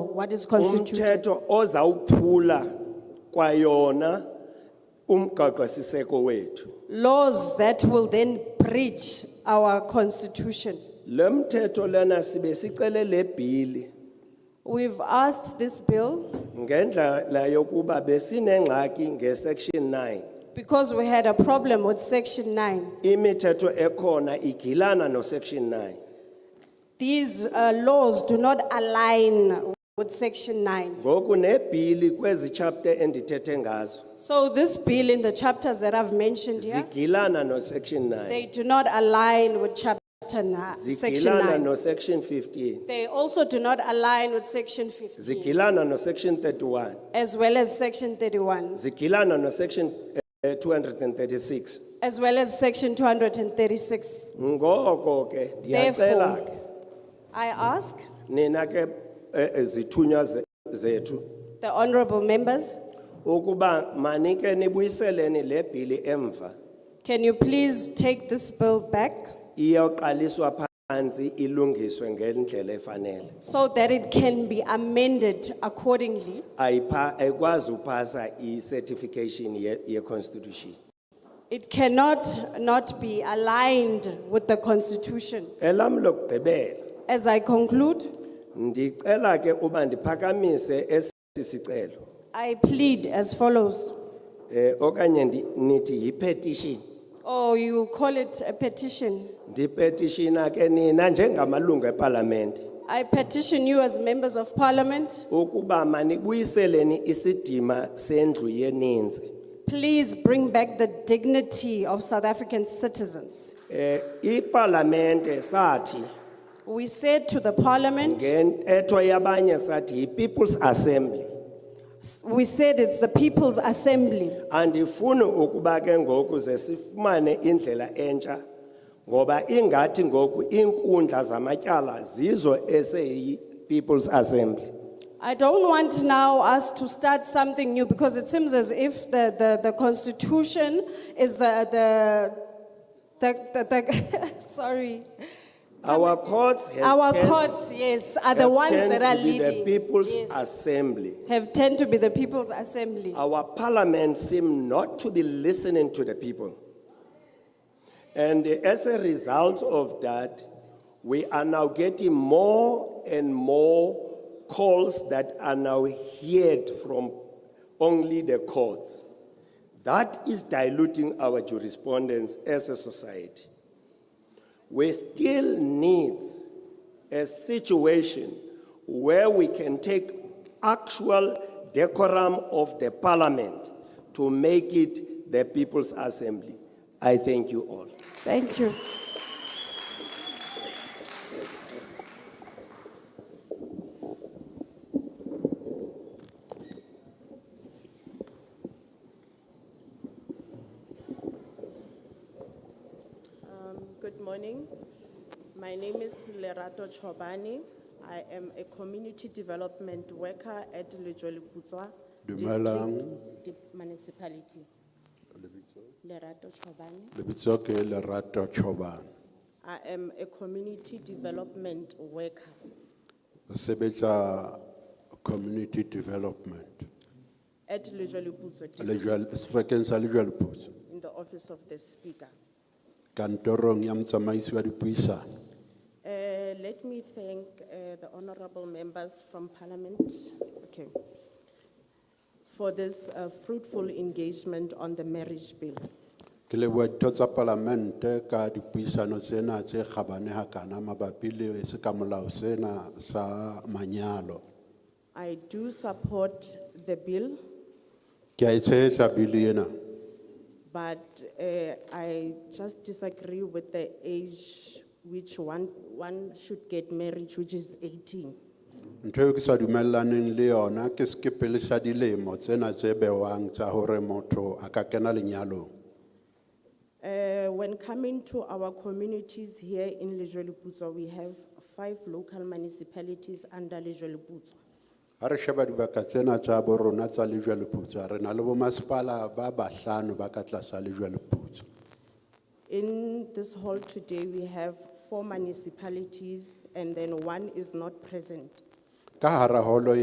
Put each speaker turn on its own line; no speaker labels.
what is constituted.
umthetho ozawuphula kwayona umgaqo siseko wethu
Laws that will then breach our constitution.
lemthetho lana sibe sicele le bhili
We've asked this bill
ngendlela yokuba besinengxaki ngesection 9
because we had a problem with section nine.
imithetho ekhona igilana nosection 9
These uh, laws do not align with section nine.
ngoku nebhili kwezi chapter endithethe ngazo
So this bill in the chapters that I've mentioned here,
zigilana nosection 9
they do not align with chapter nine, section
zigilana
nine.
nosection 15
They also do not align with section fifteen
zigilana nosection 31
as well as section thirty-one.
zigilana nosection eh, 236
As well as section two hundred and thirty-six.
ngoko ke ndiyacela
Therefore,
ke
I ask
nina ke eh, eh, zithunywa ze- zethu
the honorable members,
ukuba manike nibuyiseleni le bhili emva
can you please take this bill back
iyoqaliswa phansi ilungiswe ngendlela efanele
so that it can be amended accordingly?
ayipha ekwazi uphasa i-certification ye- ye-constitution
It cannot not be aligned with the constitution.
elam lokugqibela
As I conclude,
ndicela ke uba ndiphakamise esi sicelo
I plead as follows.
eh, okanye ndi- nithi yipetition
Or Oh, you call it a petition.
ndipetishina ke nina njengamalungu epalamente
I petition you as members of parliament,
ukuba manibuyiseleni isidima sendlu yeninzi
please bring back the dignity of South African citizens.
eh iparlamente sathi
We said to the parliament,
ngentetho yabanye sathi yi people's assembly
we said it's the people's assembly.
andifuni ukuba ke ngoku ze sifumane indlela entsha ngoba ingathi ngoku inkundla zamatyala zizo eseyi people's assembly
I don't want now us to start something new because it seems as if the, the, the constitution is the, the, the, the, the sorry.
our courts have
Our
tend-
courts, yes, are the
have
ones
tend
that are
to be the
leading.
people's
Yes.
assembly
Have tend to be the people's assembly.
Our parliament seem not to be listening to the people. And as a result of that, we are now getting more and more calls that are now heard from only the courts. That is diluting our jurisprudence as a society. We still need a situation where we can take actual decorum of the parliament to make it the people's assembly. I thank you all.
Thank you.
Um, Good morning. My name is Lerato Chobani. I am a community development worker at Lejoli Kutswa.
Dumelang.
Municipality. Lerato Chobani.
lebitso ke lerato Choban.
I am a community development worker.
sebetsa community development
At Lejoli Kutswa,
lejwal sebakeng sa lejwaloputso
in the office of the speaker.
kantorong ya motsamaisi wa dipuisano
Uh, Let me thank uh, the honorable members from parliament okay, for this uh, fruitful engagement on the marriage bill.
ke leboha ditho tsa palamente ka dipuisano tsena tse kgabane hakana mabapi le sekamolao sena sa manyalo
I do support the bill,
ke a e tshehetsa bili ena
but eh, I just disagree with the age which one, one should get married, which is eighteen.
ntho eo ke sa dumellaneng le yona ke sekepele sa dilemo tsena tse bewang tsa hore motho a ka kena lenyalong
Eh, When coming to our communities here in Lejolipuzo, we have five local municipalities under Lejolipuzo.
Ha re sheba dibaka tsena tsa bo rona tsa lejwaleputswa re na le bomasepala ba bahlano ba ka tlasa lejwaleputswa
In this hall today, we have four municipalities and then one is not present.
ka hara holo